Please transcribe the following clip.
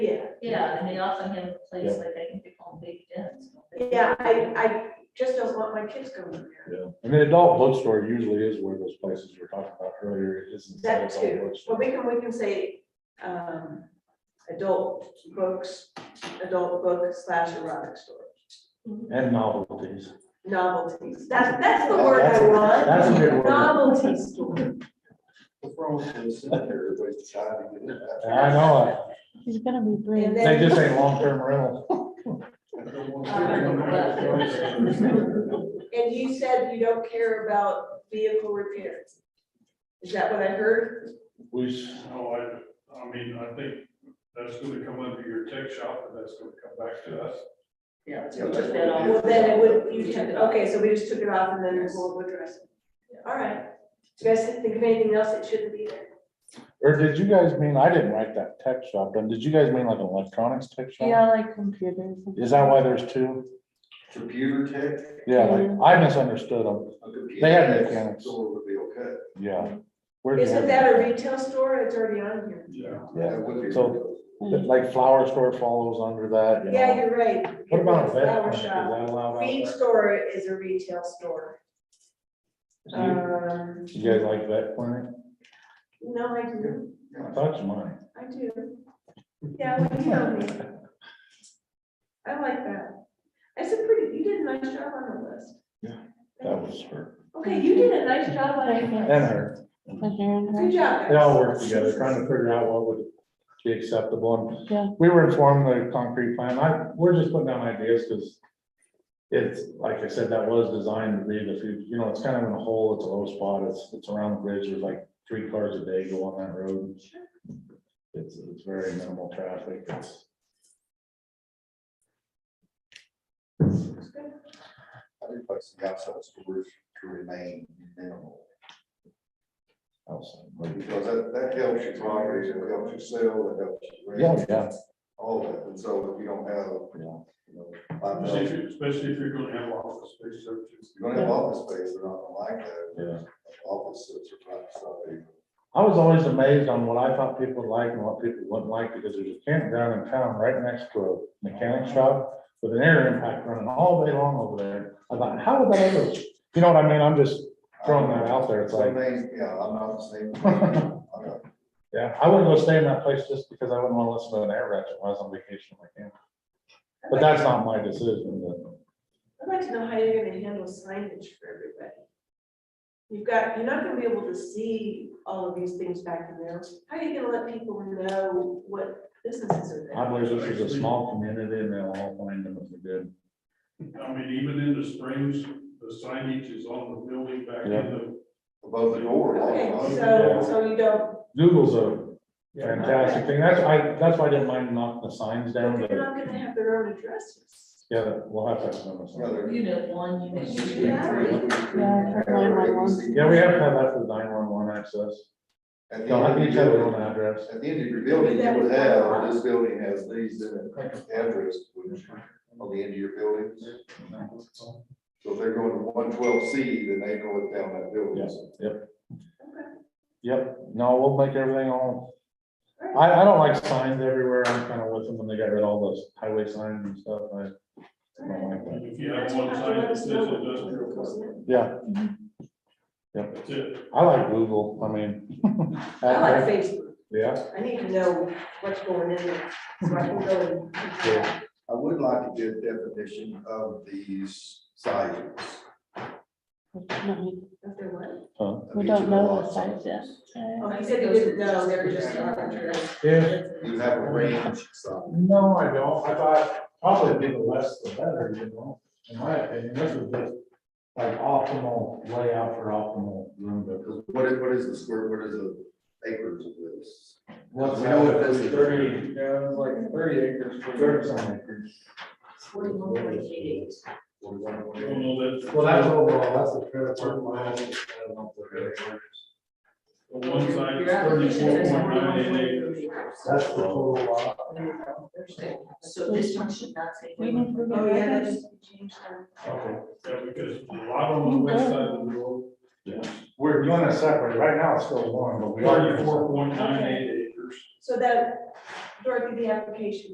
Yeah, and they also have a place like I think they call them big dens. don't they? Yeah, I, I just don't want my kids going there. Yeah, I mean, adult bookstore usually is where those places we are talking about earlier, it isn't. That adult too. bookstore. Well, we can, we can say, um, adult books, adult book slash erotic store, And novelties. novelties. That's, that's the word I That's- want. that's a good word. Novelty store. What's wrong with the cemetery, everybody's deciding to do that? I know, He's gonna be And brave. it. they then, just ain't long-term rental. I don't want to- and you said you don't care about vehicle repairs. Is that what I heard? We, s- No, I, I mean, I think that's gonna come under your tech shop, and that's gonna come back to us. Yeah. Yeah, so that's put that what on. it Well, then it would, you took it, okay, so we just took it off and then we'll address it. All right. Do you guys think of anything else that shouldn't be there? or did you guys mean, I didn't write that tech shop, and did you guys mean like an electronics tech shop? Yeah, like computers. Is that why there's two? Computer tech. Yeah, like, Mm-hmm. I misunderstood them, a computer They have tech mechanics. Store would be okay. yeah. Where do you Isn't have- that a retail store? It's already on here. Yeah. Yeah, That would be. So- Like flower store follows under that, you Yeah, know? you're right. What about a vet Flower clinic? Is shop. that allowed out Feed there? store is a retail store. You- Um, You guys like vet clinic? no, I do, I thought you might. I do. Yeah, well, you know me. I like that. That's a pretty, you did a nice job on the list. Yeah, That was her Okay, you did a nice job on it. and Good her. But they're in there. job. guys. They all work together, trying to figure out what would be acceptable. Yeah. And we were informed the concrete plan, I, we're just putting down ideas because it's, like I said, that was designed to be the, fu- you know, it's kind of in a hole, it's a low spot, it's, it's around the bridge, there's like three cars a day go on that road. It's, it's very minimal traffic, it's, I think place the outside storage to remain minimal, outside. because that, that helps your properties, it helps you sell, it helps you rent. yeah, yeah, All of it, and so if you don't have, yeah. you know, five Especially if thousand, you- especially if you're gonna have office space, so it's- you're gonna have office space, they're not gonna like that. Yeah. Office sits are probably something. I was always amazed on what I thought people would like and what people wouldn't like, because there's a campground in town right next to a mechanic shop with an air impact running all day long over there. I thought, how would that ever, you know what I mean? I'm just, Throwing that out there, it's like- Some things, yeah, I'm not the same. I'm not- yeah, I wouldn't go stay in that place just because I wouldn't want to listen to an air ratchet while I was on vacation in my camp. But that's not my decision, but I'd like to know how you're gonna handle signage for everybody. You've got, you're not gonna be able to see all of these things back in there. How are you gonna let people know what businesses are I there? believe this is a small community and they'll all find them if they did. I mean, even in the springs, the signage is on the building back in Yeah. the. Above the door. Okay, also. so, so you don't, Google's a fantastic thing. That's, I, that's why I didn't mind knocking the signs down, but but they're not gonna have their own addresses. yeah, we'll have to have some. of Yeah, them. they're- Unit one, unit two. Yeah. Yeah, for 911. Yeah, we have to have that for nine one one access. At the They'll have end each of have their your own building- address. at the end of your building, you would have, this building has these in it, address, wouldn't you, on the end of your building. So if they're going to one twelve C, then they know it down that building. Yes. Yep, no, we'll make everything all. All right. I, I don't like signs everywhere. I'm kind of with them when they got rid of all those highway signs and stuff. I don't like that. If you have one sign that says industrial, park, Yeah, that's it. I like Google. I mean. Uh, I like Facebook. Yeah, I need to know what's going in there, so I can go and. Yeah. I would like to get a definition of these sizes. We If they're what? huh. of each of don't the know lot the size yet. sizes. Oh, Uh, he said he didn't know, they were just arbitrary. If, You have a range, so. no, I don't. I thought probably the less the better, you know, in my opinion, this is just like optimal layout for optimal room. to- Because what is, what is the square, what is the acres of this? What's We that? know what this is. Thirty, yeah, it's like thirty acres, thirty some acres. Forty-one point eight eight. Forty-one, I forty-eight. don't know that- Well, that's overall, that's the trailer park mile. I don't know if the trailer park is- the One side is Your application thirty-four says point nine 41.88. eight acres. That's the total lot. So this one should not say. We need to Oh, yeah, get that's changed that. Okay. Yeah, because a lot on the west side of the road, We're doing it separate. Right now, it's still one, but we are. thirty-four point nine eight acres. So that, Dorothy, the application